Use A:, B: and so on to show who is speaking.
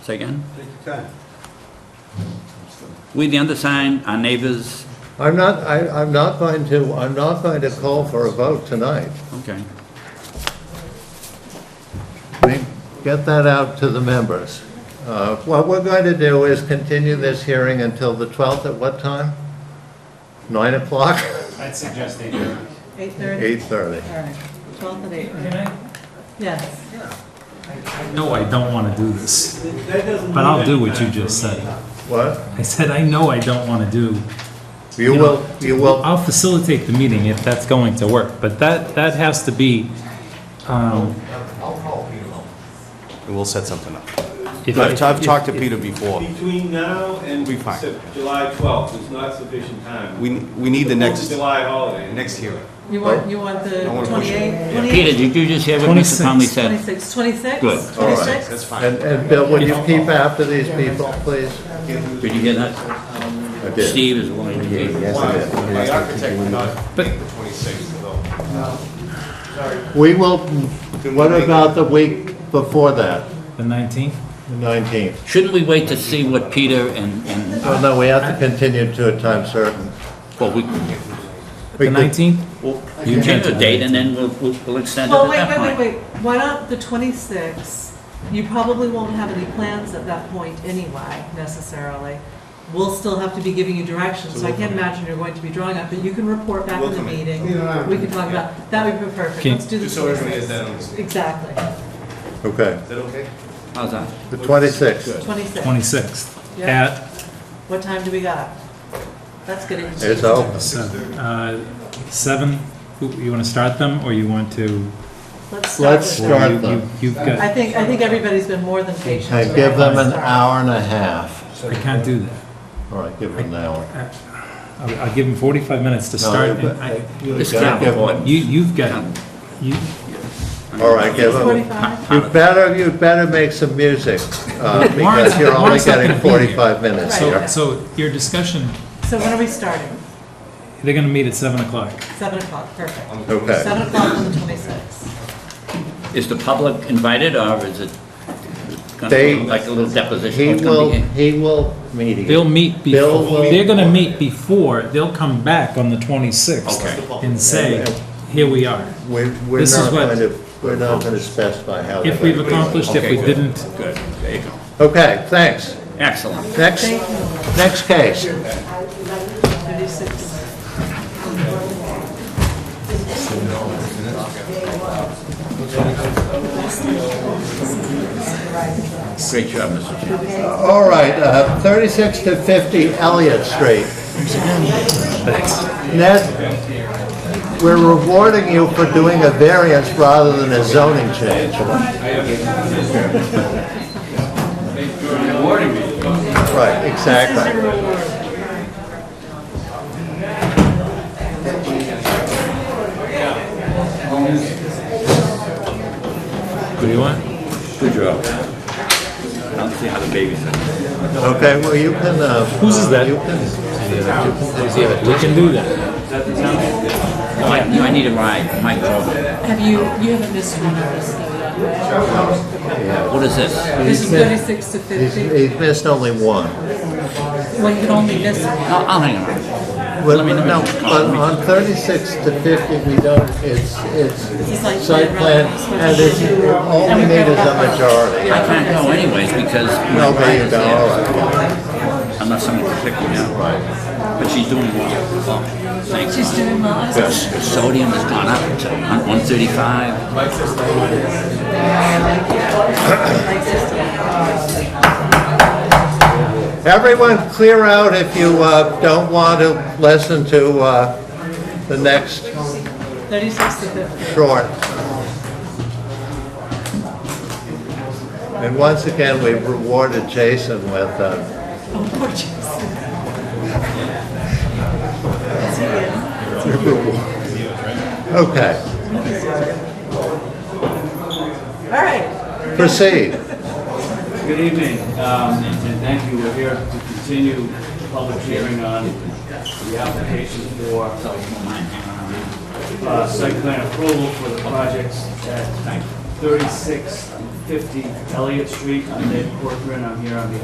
A: Say again?
B: Take your time.
A: We, the undersigned, our neighbors,
C: I'm not, I, I'm not going to, I'm not going to call for a vote tonight.
A: okay.
C: We- Get that out to the members. Uh, What we're going to do is continue this hearing until the 12th at what time? 9 o'clock?
D: I'd suggest they do.
E: Eight thirty?
C: 8:30.
E: All right, twelfth at eight,
F: Can I,
E: yes.
F: no, I don't want to do this,
B: That doesn't
F: but I'll
B: mean
F: do what you
B: anything
F: just
B: for me.
F: said.
C: What?
F: I said, I know I don't want to do.
C: You
F: know,
C: will, you will,
F: I'll facilitate the meeting if that's going to work, but that, that has to be, um,
G: And we'll set something up.
F: if I-
G: I've, I've talked to Peter before.
B: Between now and
G: Be fine.
B: Sep- July 12th is not sufficient time.
G: We, we need the
B: Fourth of
G: next,
B: July holiday.
G: next hearing.
E: You want, you want the
G: I wanna push it.
E: twenty-eighth?
A: Peter, did you just hear what Mr. Conley
F: 26.
A: said?
E: Twenty-six, twenty-six?
A: Good.
C: All right.
G: That's
C: and,
G: fine.
C: and Bill, would you keep after these people, please?
A: Did you hear that?
C: I
A: Steve is willing to be.
G: My architect would not
F: But-
G: make the 26th, though.
C: We will, what about the week before that,
F: the 19th?
C: the 19th?
A: Shouldn't we wait to see what Peter and, and,
C: Oh, no, we have to continue to a time certain.
A: well, we,
C: We
F: The
C: could-
F: 19th?
A: you change the date and then we'll, we'll we'll extend it
E: Well,
A: at
E: wait,
A: that
E: wait, wait,
A: point.
E: wait, why not the twenty-sixth? You probably won't have any plans at that point anyway, necessarily. We'll still have to be giving you directions, so I can't imagine you're going to be drawing up, but you can report back in the meeting. We can talk about, that would be perfect,
F: Can-
E: let's do the
G: Just so everybody has that
E: 26th.
G: on the, is
E: Exactly,
C: Okay,
G: that okay?
A: How's that?
C: the 26th.
E: twenty-six.
F: 26th
E: Yeah.
F: at,
E: What time do we got? That's good.
C: It's open.
F: seven, uh, 7, Who- you want to start them or you want to?
E: Let's start
C: Let's
E: with that.
C: start
F: you-
C: them
F: You've
E: I
F: got,
E: think, I think everybody's been more than patient.
C: and give them an hour and a half.
F: I can't do that.
C: All right, give them an hour.
F: I'll, I'll give them 45 minutes to
C: No,
F: start.
C: but-
F: and I-
C: You
A: This
C: gotta give
A: capital.
C: them-
F: You, you've got, you,
C: All right, give them,
E: Forty-five?
C: you better, you better make some music, uh, because
F: Warren's-
C: you're only
F: Warren's not
C: getting
F: gonna be here.
C: 45 minutes
E: Right.
C: here.
F: so, so your discussion,
E: So when are we starting?
F: they're going to meet at 7 o'clock.
E: Seven o'clock, perfect.
C: Okay,
E: Seven o'clock on the twenty-sixth.
A: Is the public invited or is it gonna
C: They-
A: be like a little deposition?
C: he
A: It's gonna
C: will,
A: be-
C: he will mediate.
F: They'll meet
C: Bill will-
F: before, they're gonna meet before, they'll come back on the 26th
A: Okay.
F: and say, here we are.
C: We're, we're
F: This is
C: not
F: what-
C: going to, we're not going to specify how.
F: If
C: they're
F: we've
C: gonna do it.
F: accomplished, if we
A: Okay, good.
F: didn't,
A: Good, there you go.
C: Okay, thanks.
A: Excellent.
C: Next, next case.
E: Thirty-six.
A: Great job, Mr. Chairman.
C: All right, uh, 36 to 50 Elliott Street. Ned, we're rewarding you for doing a variance rather than a zoning change. Right, exactly.
F: what do you want?
A: Good job. I don't see how the baby's.
C: Okay, well, you can, uh...
F: Whose is that?
C: you can-
F: We can do that.
A: I I need a ride, Mike.
E: Have you, you haven't missed one of us though yet, right?
A: What is this?
E: This is thirty-six to
C: He's
E: fifty.
C: he's missed only one.
E: Well, you can only miss one.
A: I'll I'll hang around.
C: But,
A: me know.
C: no, but on 36 to 50, we don't, it's,
E: It's like
C: it's site
E: playing
C: plan,
E: around.
C: and it's, all we need is a majority.
A: I can't go anyways because my
C: No,
A: ride
C: there you
A: is
C: go, all
A: there.
C: right.
A: Unless someone can pick me up. But she's doing well. Thanks.
E: She's doing well. I was-
A: Sodium has gone up to hun- 135.
C: Everyone clear out if you uh, don't want to listen to uh, the next
E: Thirty-six to fifty.
C: short. And once again, we've rewarded Jason with, uh,
E: Oh, poor Jason.
C: okay,
E: All right.
C: proceed.
H: Good evening, um, and thank you. We're here to continue the public hearing on the application for uh, site plan approval for the projects at 36 fifty Elliott Street. I'm Dave Corcoran, I'm here on behalf